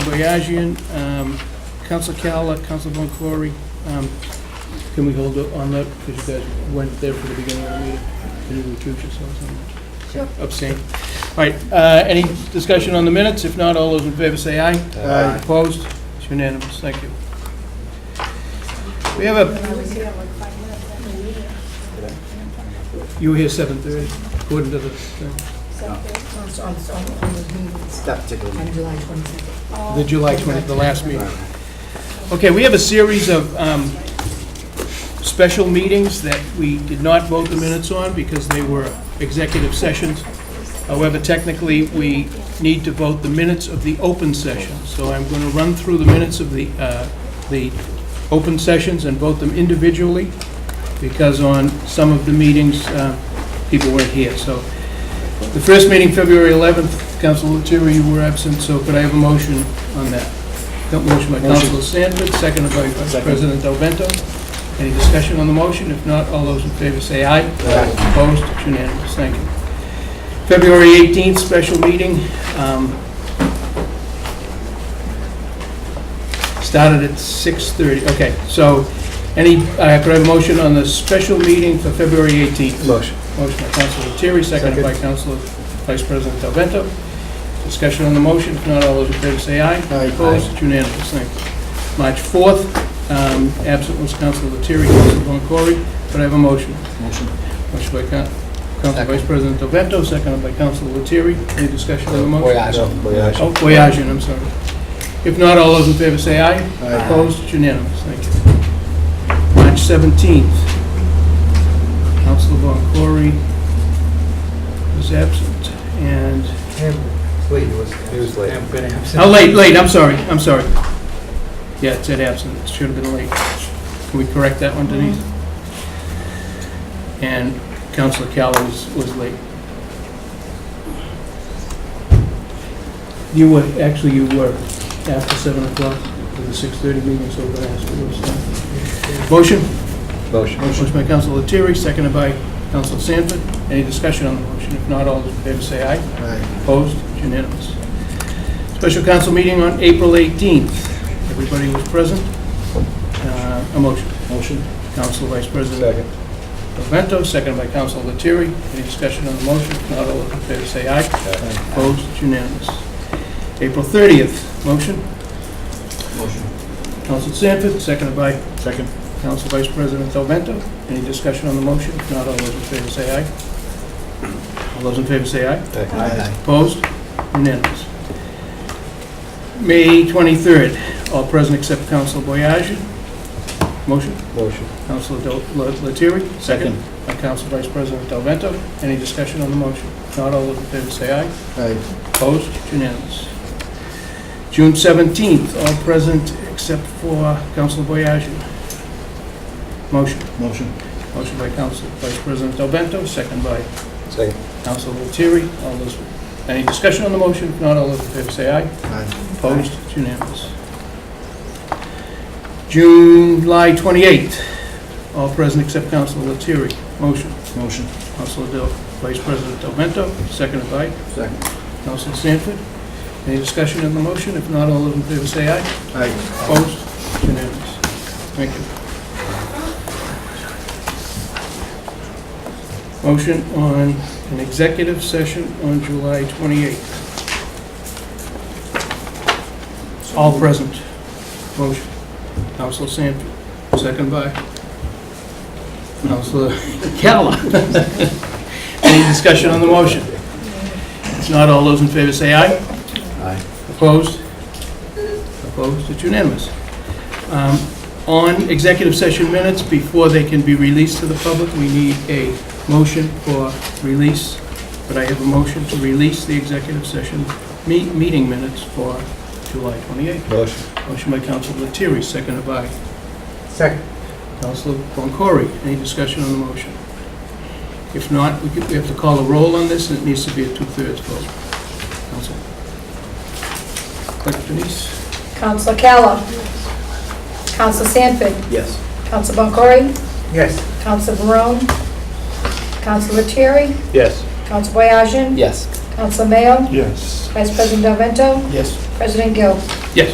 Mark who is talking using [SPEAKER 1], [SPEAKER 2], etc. [SPEAKER 1] Boyajian, um, Council Cala, Council Von Clory. um, Can we hold up on that, because you guys weren't there for the beginning of the meeting? Can you recuse yourselves on that?
[SPEAKER 2] Sure.
[SPEAKER 1] Abstain. All right, uh, any discussion on the minutes? If not, all those in favor say aye.
[SPEAKER 3] Aye.
[SPEAKER 1] Opposed? It's unanimous, thank you. We have a, you were here 7:30, according to the thing.
[SPEAKER 2] On, on, on those meetings
[SPEAKER 3] That particular
[SPEAKER 2] on
[SPEAKER 3] meeting.
[SPEAKER 2] July twenty-second.
[SPEAKER 1] The July 20th, the last meeting. Okay, we have a series of um, special meetings that we did not vote the minutes on because they were executive sessions. However, technically, we need to vote the minutes of the open session. So I'm going to run through the minutes of the, uh, the open sessions and vote them individually because on some of the meetings, uh, people weren't here. So the first meeting, February 11th, Council Leteri, you were absent, so could I have a motion on that? Got Motion by Council Sanford, seconded by Vice
[SPEAKER 3] Second.
[SPEAKER 1] President Del Vento. Any discussion on the motion? If not, all those in favor say aye.
[SPEAKER 3] Aye.
[SPEAKER 1] Opposed? It's unanimous. Thank you. February 18th, special meeting. um, Started at 6:30. Okay, so any, uh, could I have a motion on the special meeting for February 18th?
[SPEAKER 3] Motion.
[SPEAKER 1] Motion by Councilor Lettieri, seconded by Councilor Vice President Del Vento. Discussion on the motion, if not, all those in favor say aye.
[SPEAKER 3] Aye.
[SPEAKER 1] Opposed, It's unanimous, thank you. March 4th, um, absent was Councilor Lettieri, Councilor Von Cory, but I have a motion.
[SPEAKER 3] Motion.
[SPEAKER 1] Motion by Coun- Council Vice President Del Vento, seconded by Councilor Lettieri. Any discussion
[SPEAKER 3] Oh,
[SPEAKER 1] on the motion?
[SPEAKER 3] No, Boyage.
[SPEAKER 1] Oh, Boyajin, I'm sorry. If not, all those in favor say aye.
[SPEAKER 3] Aye.
[SPEAKER 1] Opposed, It's unanimous, thank you. March 17th, Councilor Von Cory was absent, and,
[SPEAKER 4] Wait, it was.
[SPEAKER 3] It was late.
[SPEAKER 4] I'm gonna have some-
[SPEAKER 1] oh, late, late, I'm sorry, I'm sorry. Yeah, it said absent, it should have been late. Can we correct that one, Denise? And Councilor Calla was, was late. You were, actually, you were after 7 o'clock for the 6:30 meeting, so we're going to ask for those. things. Motion?
[SPEAKER 3] Motion.
[SPEAKER 1] Motion by Counsel Lettieri, seconded by Counsel Sanford. Any discussion on the motion? If not, all those in favor say aye.
[SPEAKER 3] Aye.
[SPEAKER 1] Opposed? It's Unanimous. Special council meeting on April 18th. Everybody was present. Uh, A motion. Motion. Counsel Vice President
[SPEAKER 3] Second.
[SPEAKER 1] Pavento, seconded by Counsel Lettieri. Any discussion on the motion? If not, all those in favor say aye.
[SPEAKER 3] Aye.
[SPEAKER 1] Opposed? It's Unanimous. April 30th, motion.
[SPEAKER 4] Motion.
[SPEAKER 1] Counsel Sanford, seconded by
[SPEAKER 3] Second.
[SPEAKER 1] Council Vice President Del Vento. Any discussion on the motion? If not, all those in favor say aye. All those in favor say aye.
[SPEAKER 3] Aye.
[SPEAKER 1] Opposed? Unanimous. May 23rd, all present except Council Boyage. Motion,
[SPEAKER 3] Motion.
[SPEAKER 1] Council Lettieri. Second. By Council Vice President Del Vento. Any discussion on the motion? If not, all those in favor say aye.
[SPEAKER 3] Aye.
[SPEAKER 1] Opposed? Unanimous. June 17th, all present except for Council Boyage. Motion.
[SPEAKER 3] Motion.
[SPEAKER 1] Motion by Council Vice President Del Vento, second by
[SPEAKER 3] Second.
[SPEAKER 1] Council Lettieri. All those, any discussion on the motion? If not, all those in favor say aye.
[SPEAKER 3] Aye.
[SPEAKER 1] Opposed? It's unanimous. July 28th, all present except Council Lettieri. Motion,
[SPEAKER 3] Motion.
[SPEAKER 1] Council Del, Vice President Del Vento, seconded by
[SPEAKER 3] Second.
[SPEAKER 1] Council Sanford. Any discussion on the motion? If not, all those in favor say aye.
[SPEAKER 3] Aye.
[SPEAKER 1] Opposed? It's Unanimous. Thank you. Motion on an executive session on July 28th. All present. Motion. Counselor Sanford, second by Counselor Calla. Any discussion on the motion? If not, all those in favor say aye.
[SPEAKER 3] Aye.
[SPEAKER 1] Opposed? Opposed, it's unanimous. Um, On executive session minutes, before they can be released to the public, we need a motion for release. But I have a motion to release the executive session me- meeting minutes for July 28th.
[SPEAKER 3] Motion.
[SPEAKER 1] Motion by Counsel Lettieri, seconded by
[SPEAKER 4] Second.
[SPEAKER 1] Counsel Boncory. Any discussion on the motion? If not, we could- we have to call a roll on this, and it needs to be a two-thirds vote. Counsel. Clerk Denise?
[SPEAKER 5] Council Calla. Council Sanford.
[SPEAKER 3] Yes.
[SPEAKER 5] Council Boncory.
[SPEAKER 4] Yes.
[SPEAKER 5] Council Barone. Council Lettieri.
[SPEAKER 3] Yes.
[SPEAKER 5] Council Boyajin.
[SPEAKER 3] Yes.
[SPEAKER 5] Council Mayo.
[SPEAKER 3] Yes.
[SPEAKER 5] Vice President Del Vento.
[SPEAKER 3] Yes.
[SPEAKER 5] President Gill.